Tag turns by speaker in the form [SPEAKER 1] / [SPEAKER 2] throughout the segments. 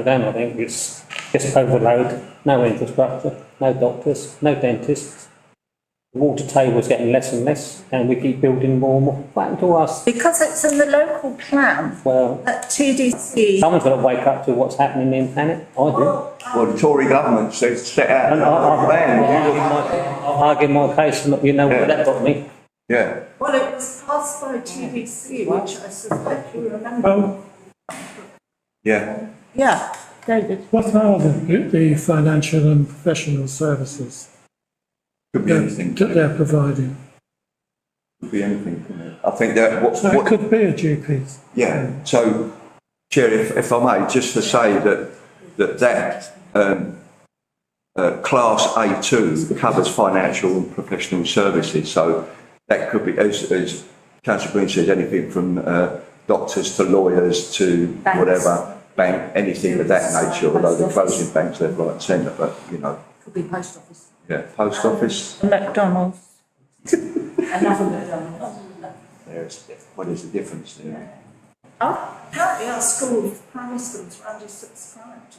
[SPEAKER 1] for them, I think it's just overload, no infrastructure, no doctors, no dentists. The Water table's getting less and less, and we keep building more and more. What happened to us?
[SPEAKER 2] Because it's in the local plan
[SPEAKER 1] Well,
[SPEAKER 2] at TDC.
[SPEAKER 1] someone's got to wake up to what's happening in planet, I do.
[SPEAKER 3] Well, the Tory government said, set out
[SPEAKER 4] uh,
[SPEAKER 1] And I,
[SPEAKER 3] a plan.
[SPEAKER 1] I argue my case, and you know what that got me.
[SPEAKER 3] Yeah,
[SPEAKER 2] Well, it was passed by TDC, which I suspect you remember.
[SPEAKER 4] Well,
[SPEAKER 3] yeah.
[SPEAKER 2] Yeah, David.
[SPEAKER 4] what are the, the financial and professional services
[SPEAKER 3] Could be
[SPEAKER 4] that
[SPEAKER 3] anything,
[SPEAKER 4] that
[SPEAKER 3] could
[SPEAKER 4] they're providing?
[SPEAKER 3] be anything. couldn't it? I think that what,
[SPEAKER 4] So it
[SPEAKER 3] what,
[SPEAKER 4] could be a GP.
[SPEAKER 3] yeah, so, Chair, if, if I may, just to say that, that that, um, uh, class A2 covers financial and professional services, so that could be, as, as councillor Green says, anything from, uh, doctors to lawyers to
[SPEAKER 2] Banks.
[SPEAKER 3] whatever, bank, anything of that nature, although they're closing banks left, right and centre, but, you know,
[SPEAKER 2] Could be post office.
[SPEAKER 3] yeah, post office.
[SPEAKER 2] McDonald's. Another McDonald's.
[SPEAKER 3] There's, what is the difference there?
[SPEAKER 2] Apparently our school primary schools are under subscribed.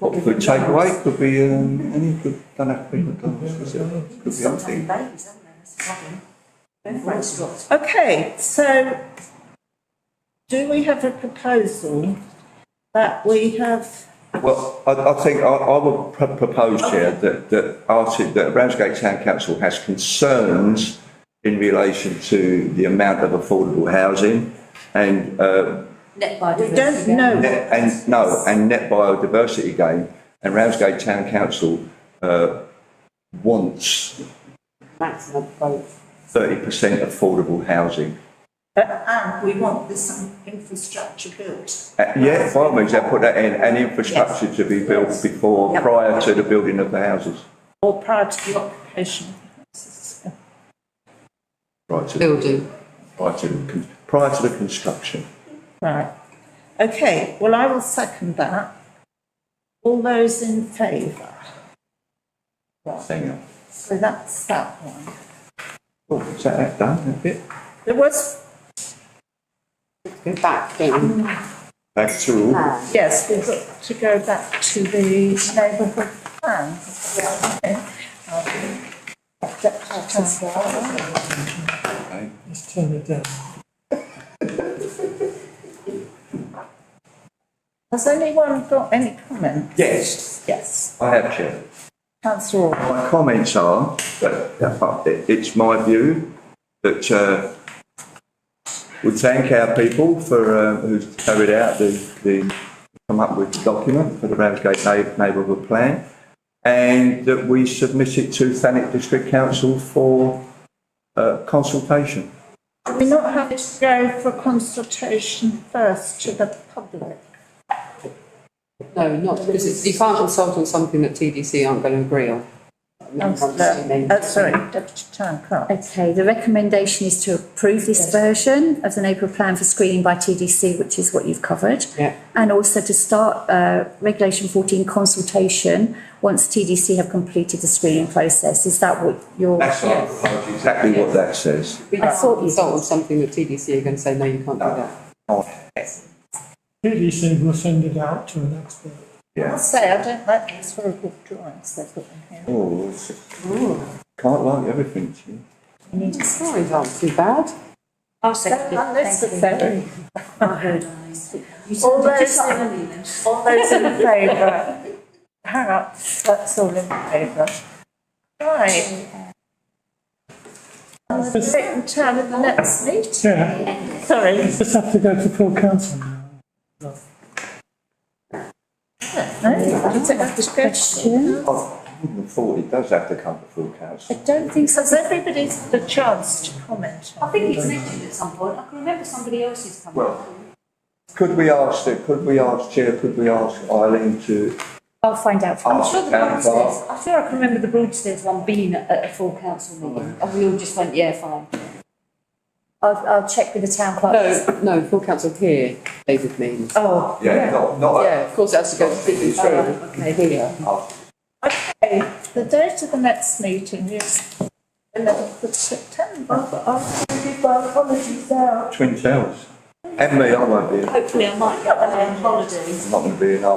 [SPEAKER 3] Could take away, could be, um, any, could, don't have to be McDonald's, could be- could be anything.
[SPEAKER 2] Okay, so do we have a proposal that we have,
[SPEAKER 3] Well, I, I think I, I would pro- propose, Chair, that, that Arti, that Ramsgate Town Council has concerns in relation to the amount of affordable housing and, uh,
[SPEAKER 2] we don't know.
[SPEAKER 3] net- and, no, and net biodiversity gain. And Ramsgate Town Council, uh, wants
[SPEAKER 2] Maximum both.
[SPEAKER 3] thirty percent affordable housing.
[SPEAKER 2] And we want this infrastructure built.
[SPEAKER 3] Uh, Yeah, by all means, they put that in, and infrastructure to be built before,
[SPEAKER 2] Yep.
[SPEAKER 3] prior to the building of the houses.
[SPEAKER 2] Or prior to the occupation.
[SPEAKER 3] Prior to,
[SPEAKER 5] building.
[SPEAKER 3] prior to, the con- prior to the construction.
[SPEAKER 2] Right. Okay, well, I will second that. All those in favour?
[SPEAKER 3] Hang on.
[SPEAKER 2] So that's that one.
[SPEAKER 3] Oh, is that that done, that bit?
[SPEAKER 2] There was,
[SPEAKER 5] Go back in.
[SPEAKER 3] Back to all.
[SPEAKER 2] Uh, yes, we've got to go back to the neighbourhood plan. Okay.
[SPEAKER 4] Let's turn it down.
[SPEAKER 2] Has anyone got any comment?
[SPEAKER 3] Yes,
[SPEAKER 2] Yes,
[SPEAKER 3] I have, Chair.
[SPEAKER 2] councillor Orr.
[SPEAKER 3] My comments are, that, that part, it- it's my view that, uh, we thank our people for, uh, who's carried out the, the, come up with the document for the Ramsgate neigh- neighbourhood plan. And that we submit it to Thanet District Council for, uh, consultation.
[SPEAKER 2] Do we not have to go for consultation first to the public?
[SPEAKER 5] No, not, because it's- you can't consult on something that TDC aren't going to agree on.
[SPEAKER 2] Councillor, uh, sorry, deputy town clerk.
[SPEAKER 6] Okay, the recommendation is to approve this version of the neighbourhood plan for screening by TDC, which is what you've covered.
[SPEAKER 5] Yeah.
[SPEAKER 6] And also to start uh, regulation fourteen consultation once TDC have completed the screening process. Is that what you're?
[SPEAKER 3] That's what I propose, exactly what that says.
[SPEAKER 5] We
[SPEAKER 6] I
[SPEAKER 5] can't
[SPEAKER 6] thought you-
[SPEAKER 5] consult on something that TDC are going to say, no, you can't do that.
[SPEAKER 4] PDC will send it out to an expert.
[SPEAKER 2] I'll
[SPEAKER 3] Yeah.
[SPEAKER 2] say, I don't like these horrible drawings they've got in here.
[SPEAKER 3] Oh, it's- can't like everything, Chair.
[SPEAKER 5] Sorry, aren't too bad.
[SPEAKER 7] I'll
[SPEAKER 2] They're
[SPEAKER 7] second it.
[SPEAKER 2] unnecessary.
[SPEAKER 7] You
[SPEAKER 2] All
[SPEAKER 7] sounded
[SPEAKER 2] those-
[SPEAKER 7] just like Emily then.
[SPEAKER 2] All those in favour? Hang up, that's all in favour. Right. And the second term of the next meeting,
[SPEAKER 4] Yeah,
[SPEAKER 2] sorry,
[SPEAKER 4] just have to go to full council now.
[SPEAKER 2] no, does it have to go to-
[SPEAKER 3] Oh, I wouldn't have thought it does have to come to full council.
[SPEAKER 2] Don't think so, has everybody had a chance to comment?
[SPEAKER 7] I think it's mentioned at some point. I can remember somebody else's coming.
[SPEAKER 3] Well- Could we ask, the- could we ask, Chair, could we ask Eileen to
[SPEAKER 6] I'll find out. from-
[SPEAKER 7] I'm
[SPEAKER 3] ask
[SPEAKER 7] sure the
[SPEAKER 3] Town
[SPEAKER 7] Broadstairs,
[SPEAKER 3] Clerk?
[SPEAKER 7] I'm sure I can remember the Broadstairs one being at at a full council meeting. And we all just went, yeah, fine.
[SPEAKER 6] I'll, I'll check with the town clerk.
[SPEAKER 5] No, no, full council here, David means.
[SPEAKER 2] Oh.
[SPEAKER 3] Yeah, not, not.
[SPEAKER 5] Yeah, of course, it has to go to
[SPEAKER 3] It's
[SPEAKER 5] TDC.
[SPEAKER 3] true.
[SPEAKER 5] Okay, here.
[SPEAKER 2] Okay, the date of the next meeting is eleventh of September, but I'll give you my apologies now.
[SPEAKER 3] Twin Towers.
[SPEAKER 2] Hey, And me, I won't be, I'm
[SPEAKER 3] Hopefully I might get there on holiday.
[SPEAKER 2] not going to be in